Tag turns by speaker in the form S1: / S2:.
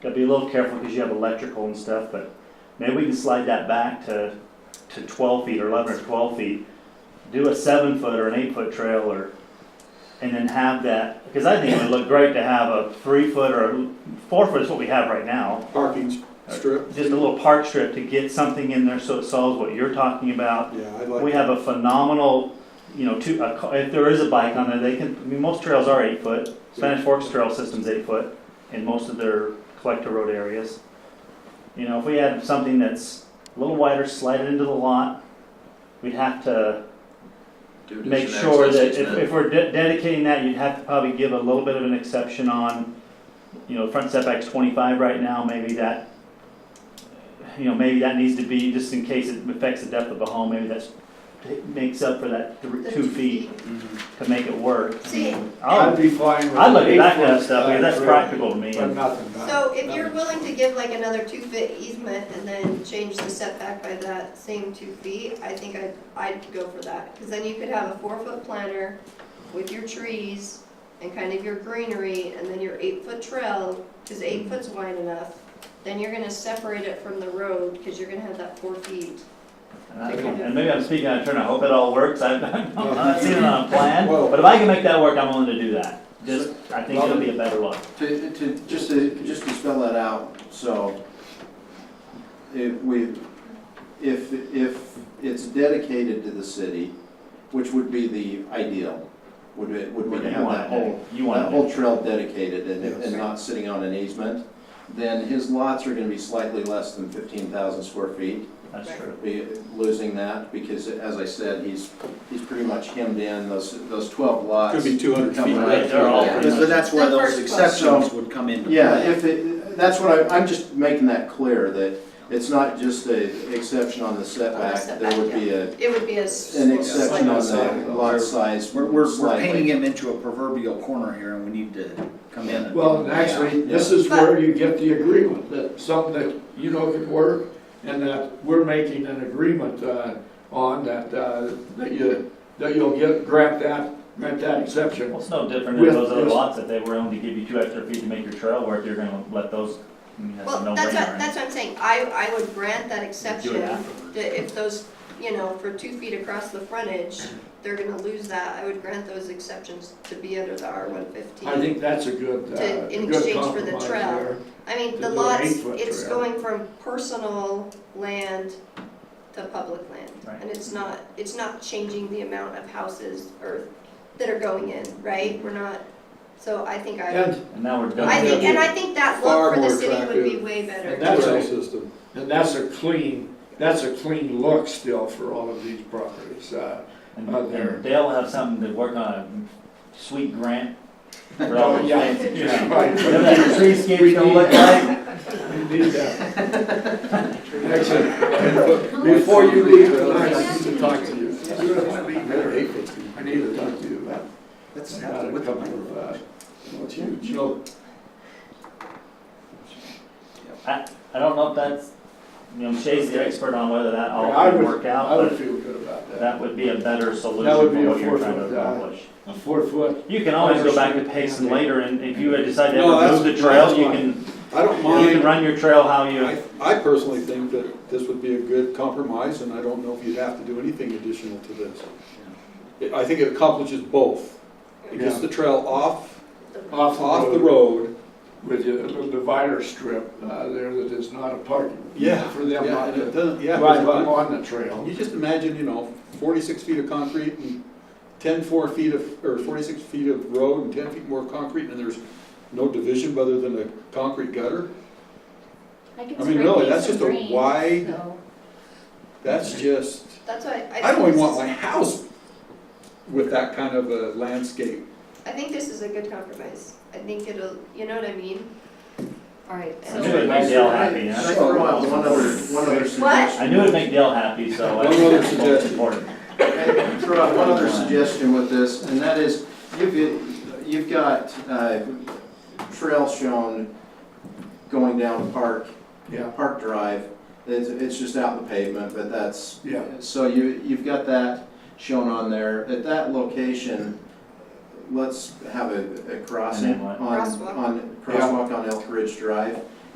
S1: Gotta be a little careful because you have electrical and stuff, but maybe we can slide that back to, to twelve feet or eleven or twelve feet. Do a seven foot or an eight foot trail or, and then have that, because I think it would look great to have a three foot or a four foot is what we have right now.
S2: Parking strip,
S1: Just a little park strip to get something in there so it solves what you're talking about.
S2: yeah, I'd
S1: We
S2: like,
S1: have a phenomenal, you know, two, a, ca- if there is a bike on there, they can, I mean, most trails are eight foot. Spanish Forks Trail System's eight foot in most of their collector road areas. You know, if we had something that's a little wider, slide it into the lot, we'd have to
S3: Do addition
S1: make sure
S3: access
S1: that if,
S3: easement.
S1: if we're de- dedicating that, you'd have to probably give a little bit of an exception on, you know, front setback's twenty-five right now, maybe that, you know, maybe that needs to be, just in case it affects the depth of the home, maybe that's, it makes up for that three, two feet to make it work.
S4: See,
S2: I'd
S1: I'll,
S2: be fine with.
S1: I look at that kind of
S2: eight-foot
S1: stuff, because that's
S2: side
S1: practical to me.
S2: But nothing. not-
S4: so if you're
S2: nothing.
S4: willing to give like another two foot easement and then change the setback by that same two feet, I think I'd, I'd go for that. Cause then you could have a four foot planter with your trees and kind of your greenery and then your eight foot trail, cause eight foot's wide enough. Then you're gonna separate it from the road, cause you're gonna have that four feet.
S1: And I- And maybe I'm speaking out of turn, I hope it all works, I've, I've not seen it on a plan,
S2: Well-
S1: but if I can make that work, I'm willing to do that. Just, I think it'll be a better look.
S5: To, to, just to, just to spell that out, so if we, if, if it's dedicated to the city, which would be the ideal, would be, would be to
S1: You
S5: have
S1: want
S5: that
S1: it,
S5: whole,
S1: You
S5: that
S1: want it.
S5: whole trail dedicated and,
S2: Yes.
S5: and not sitting on an easement, then his lots are gonna be slightly less than fifteen thousand square feet,
S1: that's true.
S5: be losing that, because as I said, he's, he's pretty much hemmed in, those, those twelve lots.
S2: Could be two hundred
S5: come
S2: feet.
S5: right
S1: Right, they're all
S5: through
S1: pretty
S5: there.
S1: much-
S6: So that's where
S4: The
S6: those
S4: first one.
S6: exceptions would come into play.
S5: Yeah, if it, that's what I, I'm just making that clear, that it's not just a exception on the setback, there would be a,
S4: It would be a. s-
S5: an exception on
S4: slight-
S5: the lot size
S6: We're, we're, we're painting
S5: slightly.
S6: him into a proverbial corner here and we need to come in and.
S2: Well, and actually, this is where you get the agreement, that something that you know can work, and that we're making an agreement, uh, on that, uh, that you, that you'll get, grant that, grant that exception.
S1: Well, it's no different than
S2: With-
S1: those other
S2: with-
S1: lots, if they were only to give you two extra feet to make your trail work, you're gonna let those, I mean, that's a
S4: Well, that's what,
S1: no-brainer.
S4: that's what I'm saying, I, I would grant that
S3: Do
S4: exception.
S3: it afterwards.
S4: that if those, you know, for two feet across the frontage, they're gonna lose that, I would grant those exceptions to be under the R one fifteen.
S2: I think that's a good, uh,
S4: To- in
S2: good
S4: exchange for the
S2: compromise
S4: trail.
S2: there.
S4: I mean,
S2: to
S4: the
S2: do an
S4: lots,
S2: eight-foot
S4: it's
S2: trail.
S4: going from personal land to public land.
S1: Right.
S4: And it's not, it's not changing the amount of houses or, that are going in, right? We're not, so I think I,
S2: And,
S1: And now we're done.
S4: I think, and I think that look
S2: Far
S4: for the
S2: more
S4: city would be
S2: attractive.
S4: way better.
S2: and that's a, and that's a clean, that's a clean look still for all of these properties, uh,
S1: And
S2: out there.
S1: and Dale will have something to work on, a sweet grant for all those
S2: Oh, Yeah.
S1: things.
S2: Yeah.
S1: Whatever that treescape's gonna look like,
S2: we need that. Excellent. Before you leave tonight, I need to talk to you. I need to talk to you about,
S6: That's
S2: about a couple of, uh, what's huge.
S1: I don't know if that's, you know, Shay's the expert on whether that
S2: I
S1: all
S2: would-
S1: would work
S2: I
S1: out,
S2: would
S1: but
S2: feel good about that.
S1: that would be a better solution
S2: That would be
S1: for
S2: a
S1: what you're trying to
S2: forefront, uh,
S1: accomplish.
S2: A four foot.
S1: You can always go back to Payson later, and if you decide to ever move the trail, you can,
S7: I don't
S1: you can
S7: mind,
S1: run your trail how you,
S7: I, I personally think that this would be a good compromise, and I don't know if you'd have to do anything additional to this. It- I think it accomplishes both. It gets the trail off, off the road,
S2: With a little divider strip, uh, there that is not a parking.
S7: yeah.
S2: For them
S7: yeah,
S2: not
S7: and it
S2: to
S7: doesn't- yeah,
S2: drive up
S7: because
S2: on the
S7: you-
S2: trail.
S7: You just imagine, you know, forty-six feet of concrete and ten four feet of, or forty-six feet of road and ten feet more of concrete, and there's no division other than a concrete gutter. I mean, really, that's just a wide, that's just.
S4: That's why I.
S7: I don't
S4: think
S7: even
S4: this
S7: want
S4: is-
S7: my house with that kind of a landscape.
S4: I think this is a good compromise. I think it'll, you know what I mean?
S8: All right,
S1: I
S8: so
S1: knew it'd make Dale happy,
S5: Can
S1: and
S5: I
S1: I-
S5: throw out one other, one other suggestion?
S1: I knew it'd make Dale happy, so I
S7: One
S1: think
S7: other
S1: that's the most
S7: suggestion.
S1: important.
S5: Can I Throw out one other suggestion with this, and that is, you've, you've got, uh, trail shown going down Park,
S2: Yeah,
S5: Park Drive. It's, it's just out in the pavement, but that's,
S2: yeah.
S5: So you, you've got that shown on there. At that location, let's have a, a crossing
S1: An inlet.
S5: on,
S4: Crosswalk.
S5: on, crosswalk on Elk Ridge Drive.